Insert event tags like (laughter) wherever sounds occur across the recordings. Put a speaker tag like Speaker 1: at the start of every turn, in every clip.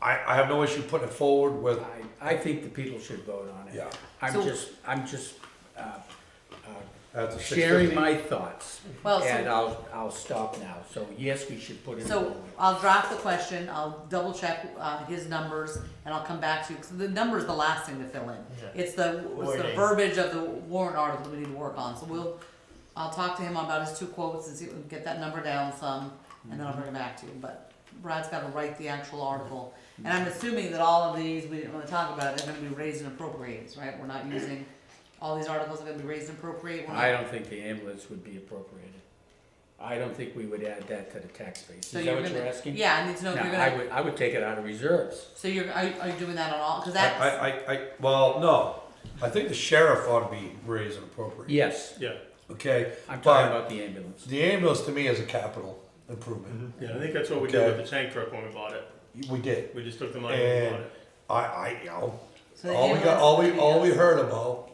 Speaker 1: I, I have no issue putting it forward with,
Speaker 2: I, I think the people should vote on it.
Speaker 1: Yeah.
Speaker 2: I'm
Speaker 3: So-
Speaker 2: just, I'm just uh,
Speaker 1: that's a uh, six
Speaker 2: sharing
Speaker 1: fifty.
Speaker 2: my thoughts.
Speaker 3: Well, so-
Speaker 2: And I'll, I'll stop now. So yes, we should put it
Speaker 3: So
Speaker 2: forward.
Speaker 3: I'll drop the question, I'll double check, uh, his numbers, and I'll come back to you, 'cause the number's the last thing to fill in.
Speaker 4: Yeah.
Speaker 3: It's the, it's the
Speaker 4: Wording.
Speaker 3: verbiage of the warrant article we need to work on, so we'll, I'll talk to him about his two quotes and see, if we can get that number down some, and then I'll bring it back to you, but Brad's gotta write the actual article. And I'm assuming that all of these, we didn't wanna talk about, are gonna be raised and appropriated, right? We're not using, all these articles are gonna be raised and appropriate, we're
Speaker 2: I
Speaker 3: not,
Speaker 2: don't think the ambulance would be appropriated. I don't think we would add that to the tax base.
Speaker 3: so
Speaker 2: Is that
Speaker 3: you're
Speaker 2: what
Speaker 3: gonna,
Speaker 2: you're asking?
Speaker 3: yeah, I need to know
Speaker 2: No,
Speaker 3: if you're
Speaker 2: I
Speaker 3: gonna,
Speaker 2: would, I would take it out of reserves.
Speaker 3: so you're, are, you- are you doing that on all, cause
Speaker 1: I,
Speaker 3: that's.
Speaker 1: I, I, I- well, no, I think the sheriff ought to be raised and appropriate,
Speaker 2: Yes,
Speaker 4: Yeah,
Speaker 1: okay?
Speaker 2: I'm talking
Speaker 1: But
Speaker 2: about the ambulance.
Speaker 1: the ambulance to me is a capital improvement,
Speaker 4: yeah, I think that's what we did
Speaker 1: Okay.
Speaker 4: with the tank truck when we bought it.
Speaker 2: Mm-hmm.
Speaker 1: we did.
Speaker 4: We just took the money and
Speaker 1: And
Speaker 4: bought it.
Speaker 1: I, I, you know,
Speaker 3: So the
Speaker 1: all we got,
Speaker 3: ambulance
Speaker 1: all we,
Speaker 3: company
Speaker 1: all we
Speaker 3: does-
Speaker 1: heard about,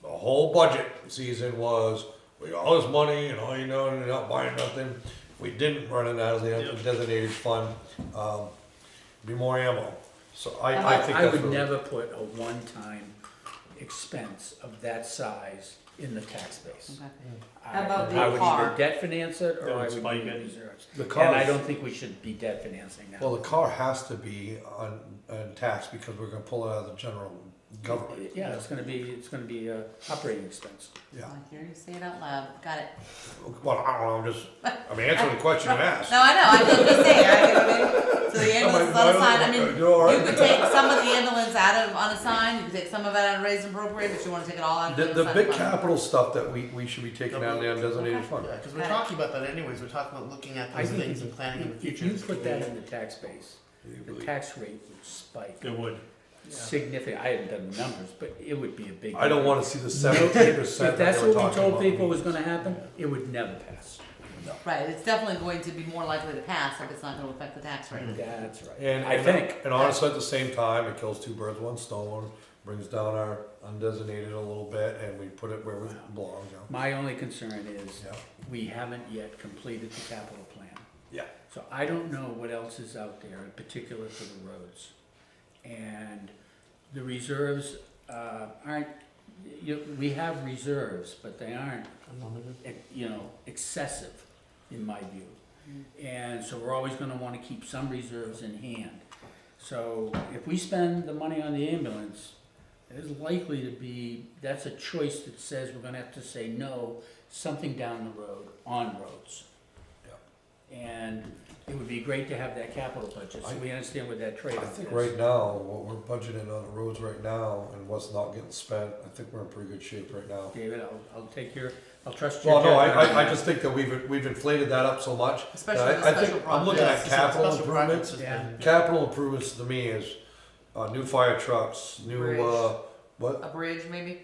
Speaker 1: the whole budget season was, we got all this money and all you know, and you're not buying nothing. We didn't run it out of the
Speaker 4: Yeah.
Speaker 1: designated fund, um, be more ammo, so I, I
Speaker 3: I-
Speaker 1: think
Speaker 2: I
Speaker 1: that's
Speaker 2: would
Speaker 1: what-
Speaker 2: never put a one-time expense of that size in the tax base.
Speaker 3: Okay.
Speaker 2: I-
Speaker 3: How about the
Speaker 2: I would
Speaker 3: car?
Speaker 2: either debt finance it or
Speaker 4: Don't
Speaker 2: I would
Speaker 4: spike
Speaker 2: do
Speaker 4: it.
Speaker 2: reserves.
Speaker 1: The
Speaker 2: And
Speaker 1: car
Speaker 2: I
Speaker 1: is-
Speaker 2: don't think we should be debt financing
Speaker 1: Well,
Speaker 2: that.
Speaker 1: the car has to be on, on tax because we're gonna pull it out of the general government.
Speaker 2: Yeah, it's gonna be, it's gonna be a operating expense.
Speaker 1: Yeah,
Speaker 3: I hear you say it out loud. Got it.
Speaker 1: well, I don't know, I'm just, I'm answering the question you asked.
Speaker 3: No, I know. I just was saying. I, I mean, so the ambulance is
Speaker 1: I don't-
Speaker 3: unassigned. I mean,
Speaker 1: You're all right.
Speaker 3: you could take some of the ambulance out of unassigned. You could take some of it out of raised and appropriate, but you want to take it all out of
Speaker 1: The, the
Speaker 3: unassigned
Speaker 1: big
Speaker 3: fund.
Speaker 1: capital stuff that we, we should be taking out of the undesignated fund.
Speaker 5: Because we're
Speaker 3: Okay.
Speaker 5: talking about that anyways, we're talking about looking at
Speaker 2: I
Speaker 5: those
Speaker 2: think
Speaker 5: things and
Speaker 2: if-
Speaker 5: planning in the
Speaker 2: if-
Speaker 5: future.
Speaker 2: If you put that in the tax base, the tax rate would spike
Speaker 4: It would.
Speaker 2: significantly. I haven't done the numbers, but it would be a big.
Speaker 1: I don't (laughs)
Speaker 2: number.
Speaker 1: wanna see the seventeen percent
Speaker 2: If
Speaker 1: that
Speaker 2: that's
Speaker 1: they were
Speaker 2: what we
Speaker 1: talking
Speaker 2: told people
Speaker 1: about.
Speaker 2: was gonna happen, it would never pass.
Speaker 3: Right. It's definitely going to be more likely to pass if it's not going to affect the tax rate.
Speaker 2: That's right.
Speaker 1: And,
Speaker 2: I
Speaker 1: and,
Speaker 2: think,
Speaker 1: and honestly, at the same time, it kills two birds, one stone, brings down our undesignated a little bit and we put it where it belongs, you know?
Speaker 2: my only concern is,
Speaker 1: Yeah.
Speaker 2: we haven't yet completed the capital plan.
Speaker 1: Yeah.
Speaker 2: So I don't know what else is out there, in particular for the roads. And the reserves uh, aren't, you, we have reserves, but they aren't, eh, you know, excessive, in my view. And so we're always gonna wanna keep some reserves in hand. So if we spend the money on the ambulance, there's likely to be, that's a choice that says we're gonna have to say no, something down the road, on roads. And it would be great to have that capital budget, so we understand what that
Speaker 1: I
Speaker 2: trade-off is.
Speaker 1: think right now, what we're budgeting on the roads right now and what's not getting spent, I think we're in pretty good shape right now.
Speaker 2: David, I'll, I'll take your, I'll trust your
Speaker 1: Well, no, I,
Speaker 2: judgment on
Speaker 1: I, I
Speaker 2: that.
Speaker 1: just think that we've, we've inflated that up so much. that
Speaker 3: Especially
Speaker 1: I-
Speaker 3: with
Speaker 1: I think-
Speaker 3: special
Speaker 1: I'm looking
Speaker 5: Yeah,
Speaker 1: at
Speaker 5: it's just a
Speaker 1: capital
Speaker 5: special project
Speaker 1: improvements.
Speaker 5: system.
Speaker 1: Capital improvements to me is, uh, new fire trucks,
Speaker 3: Bridge.
Speaker 1: new, uh, what?
Speaker 3: A bridge, maybe.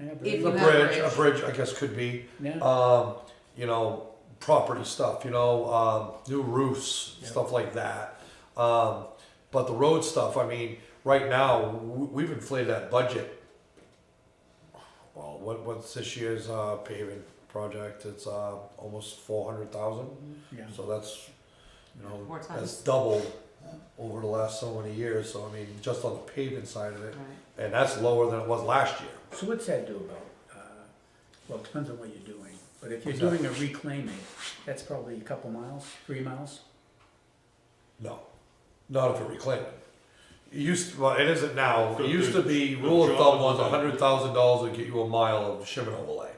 Speaker 2: Yeah, but-
Speaker 3: if
Speaker 1: A
Speaker 3: you have-
Speaker 1: bridge, a
Speaker 3: bridge.
Speaker 1: bridge, I guess could be,
Speaker 2: Yeah,
Speaker 1: um, you know, property stuff, you know, um, new roofs, stuff like that. Um, but the road stuff, I mean, right now, we, we've inflated that budget. Well, what, what's this year's, uh, paving project? It's, uh, almost four hundred thousand.
Speaker 2: yeah.
Speaker 1: So that's, you know,
Speaker 3: Mm-hmm. Four times.
Speaker 1: that's doubled over the last so many years, so I mean, just on the paving side of it,
Speaker 3: Right.
Speaker 1: and that's lower than it was last year.
Speaker 2: So what's that do about, uh, well, it depends on what you're doing, but if you're
Speaker 1: What's that?
Speaker 2: doing a reclaiming, that's probably a couple miles, three miles?
Speaker 1: No, not if it reclaimed. It used, well, it isn't now,
Speaker 4: The-
Speaker 1: it used to be,
Speaker 4: the-
Speaker 1: rule
Speaker 4: the
Speaker 1: of thought
Speaker 4: job
Speaker 1: was
Speaker 4: was-
Speaker 1: a hundred thousand dollars would get you a mile of shimmin overlay.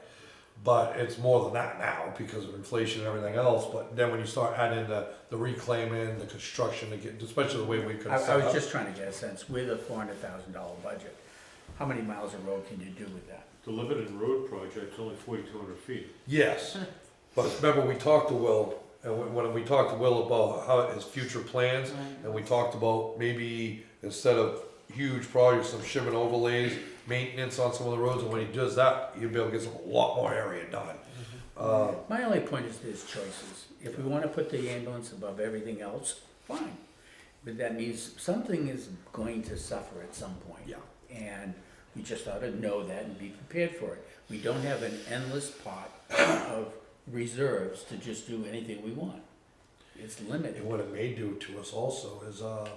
Speaker 1: But it's more than that now because of inflation and everything else, but then when you start adding the, the reclaiming, the construction, to get, especially the way we could
Speaker 2: I,
Speaker 1: set
Speaker 2: I was
Speaker 1: up.
Speaker 2: just trying to get a sense, with a four hundred thousand dollar budget, how many miles of road can you do with that?
Speaker 6: The Lebanon Road project's only forty-two hundred feet.
Speaker 1: Yes, but remember we talked to Will, and when- when we talked to Will about how his future plans, and we talked about maybe instead of huge projects, some shim and overlays, maintenance on some of the roads, and when he does that, you'll be able to get some, a lot more area done. Uh,
Speaker 2: My only point is there's choices. If we wanna put the ambulance above everything else, fine. But that means something is going to suffer at some point.
Speaker 1: Yeah.
Speaker 2: And we just ought to know that and be prepared for it. We don't have an endless pot of reserves to just do anything we want. It's limited.
Speaker 1: and what it may do to us also is, uh,